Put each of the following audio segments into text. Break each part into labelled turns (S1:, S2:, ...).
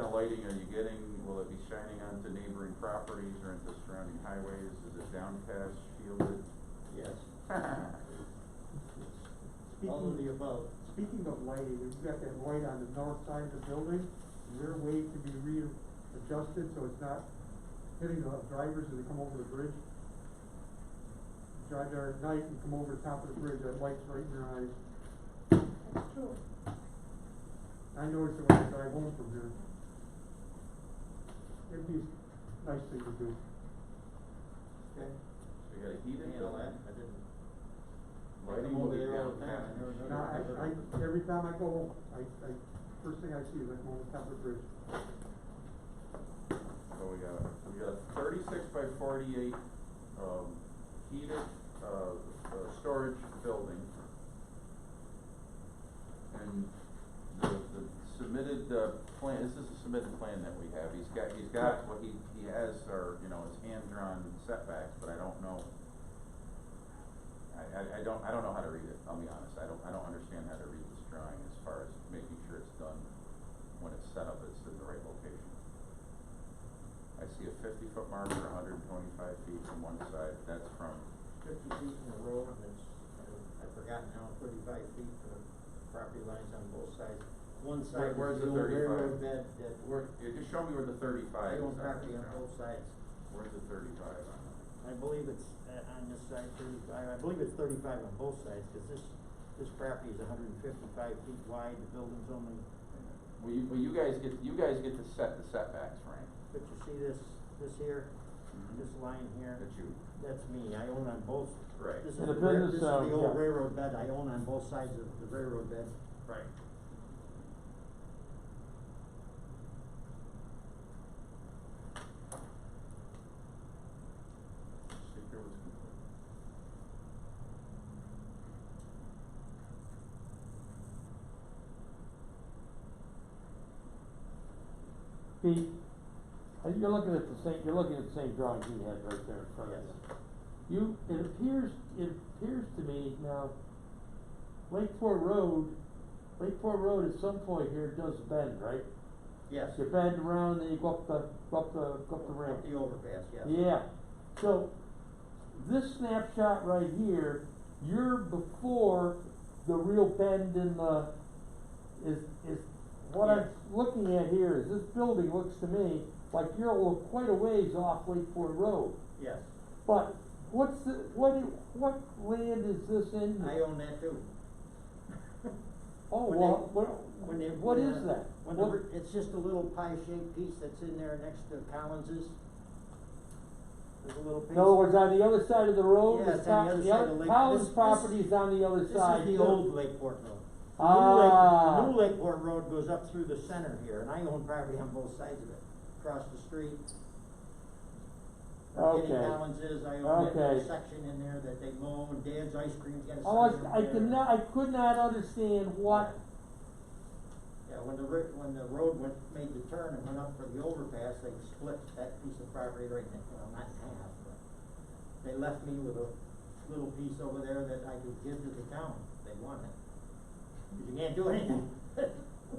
S1: of lighting are you getting? Will it be shining onto neighboring properties or into surrounding highways? Is it downcast, shielded?
S2: Yes. All of the
S3: Speaking,
S2: above.
S3: speaking of lighting, we've got that light on the north side of the building, is there a way to be readjusted so it's not hitting the drivers as they come over the bridge? Drive there at night and come over the top of the bridge, that light's right in your eyes.
S4: That's true.
S3: I noticed it when I drive home from here. It'd be a nice thing to do.
S2: Okay.
S1: We got a heated
S2: Handle that,
S1: building?
S2: I didn't.
S1: Lighting
S2: I'm
S1: will
S2: over
S1: be
S2: there all the
S1: downcast.
S2: time. I never
S3: Now, I,
S2: noticed.
S3: I, every time I go home, I, I, first thing I see is I come over the top of the bridge.
S1: So we got, we got thirty-six by forty-eight, um, heated, uh, uh, storage building. And the, the submitted, uh, plan, this is a submitted plan that we have, he's got, he's got what he, he has, or, you know, his hand-drawn setbacks, but I don't know. I, I, I don't, I don't know how to read it, I'll be honest, I don't, I don't understand how to read this drawing as far as making sure it's done when it's set up, it's in the right location. I see a fifty foot marker, hundred and twenty-five feet from one side, that's from,
S2: Fifty feet in a row, and it's, I- I've forgotten now, thirty-five feet from the property lines on both sides. One side
S1: where's
S2: is
S1: the
S2: the old
S1: 35?
S2: railroad bed that,
S1: where, yeah, just show me where the thirty-five
S2: they
S1: is.
S2: own
S1: on
S2: property
S1: this
S2: on
S1: drawing.
S2: both sides.
S1: Where's the thirty-five on it?
S2: I believe it's, uh, on this side thirty-five, I believe it's thirty-five on both sides, cause this, this property is hundred and fifty-five feet wide, the building's only,
S1: Well, you, well, you guys get, you guys get to set the setbacks, Frank.
S2: but you see this, this here, this line here?
S1: Mm-hmm. That you,
S2: That's me, I own on both.
S1: Right.
S2: This is
S5: And
S2: the,
S5: the
S2: rail- this is
S5: business, uh,
S2: the old
S5: yeah.
S2: railroad bed, I own on both sides of the railroad bed.
S1: right. Seeker was complete.
S5: Pete, uh, you're looking at the same, you're looking at the same drawing he had right there in front of you. You, it appears, it appears to me now, Lake Fort Road, Lake Fort Road at some point here does bend, right?
S2: Yes.
S5: You bend around and you go up the, go up the, go up the ramp.
S2: Up the overpass, yes.
S5: Yeah, so this snapshot right here, you're before the real bend in the, is, is, what I'm
S2: Yes.
S5: looking at here is this building looks to me like you're a- quite a ways off Lake Ford Road.
S2: Yes,
S5: But what's the, what, do- what land is this in?
S2: I own that too.
S5: Oh,
S2: When
S5: well,
S2: they-
S5: what,
S2: when they-
S5: what
S2: when,
S5: is
S2: uh,
S5: that?
S2: When the,
S5: What-
S2: br- it's just a little pie-shaped piece that's in there next to Collins's. There's a little piece.
S5: In other words, on the other side of the road,
S2: Yeah,
S5: it's
S2: it's on
S5: not-
S2: the other
S5: the
S2: side
S5: other,
S2: of Lake-
S5: Collins
S2: this- this-
S5: property is on the other
S2: This
S5: side.
S2: is the
S5: too.
S2: old Lakeport Road. The new Lake-
S5: Ah.
S2: New Lakeport Road goes up through the center here, and I own property on both sides of it, across the street. where Kenny
S5: Okay.
S2: Collins is, I own that little
S5: Okay.
S2: section in there that they mow, and Dad's Ice Cream's got a
S5: Oh, I,
S2: sign
S5: I
S2: over there.
S5: could not, I could not understand what,
S2: Yeah, when the ri- when the road went, made the turn and went up for the overpass, they split that piece of property right in, well, not in half, but they left me with a little piece over there that I could give to the town if they wanted. But you can't do anything.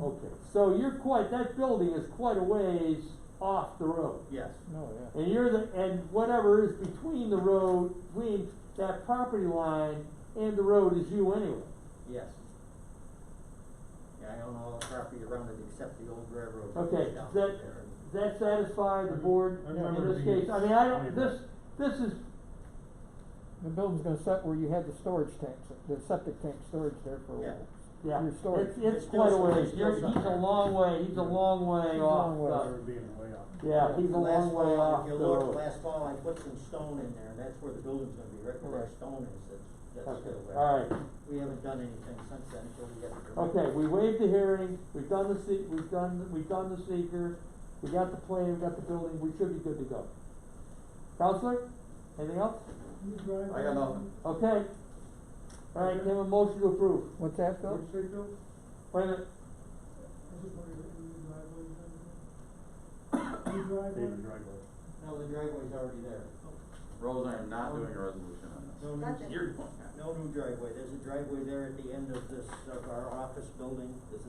S5: okay, so you're quite, that building is quite a ways off the road.
S2: Yes,
S6: No, yeah.
S5: And you're the, and whatever is between the road, between that property line and the road is you anyway.
S2: yes. Yeah, I own all the property around it except the old railroad. that
S5: Okay,
S2: goes down
S5: that,
S2: there.
S5: that satisfy the board
S6: Mm-hmm. I
S5: in
S6: remember
S5: this
S6: the-
S5: case, I mean, I don't, this, this is,
S6: The building's gonna set where you had the storage tanks, the septic tank storage there for a
S2: Yeah.
S6: while.
S5: yeah,
S6: Your story.
S5: it's,
S2: There's
S5: it's quite a
S2: still-
S5: ways,
S2: there's still
S5: you're, he's a
S2: something.
S5: long way, he's a long way
S6: He's a
S5: off
S6: long way.
S5: the-
S6: Or
S3: being way off.
S5: yeah, he's a
S2: Last
S5: long way
S2: fall,
S5: off
S2: if
S5: the
S2: you
S5: road.
S2: look, last fall, I put some stone in there, and that's where the building's gonna be, right where that
S6: Right.
S2: stone is, that's, that's
S5: Okay,
S2: still there.
S5: all right.
S2: We haven't done anything since then, so we get the permit.
S5: Okay, we waived the hearing, we've done the se- we've done, we've done the seeker, we got the plan, we got the building, we should be good to go. Counselor, anything else?
S3: You drive.
S1: I got nothing.
S5: Okay. All right, can I have a motion to approve?
S6: What's that, Phil?
S3: What'd you say, Bill?
S5: Wait a minute,
S3: I just wondered if you drive what you done. You drive one?
S2: No, the driveway's already there.
S1: Rose, I am not doing a resolution on this.
S2: No
S4: Gotcha.
S2: new,
S1: You're doing that.
S2: no new driveway, there's a driveway there at the end of this, of our office building, there's a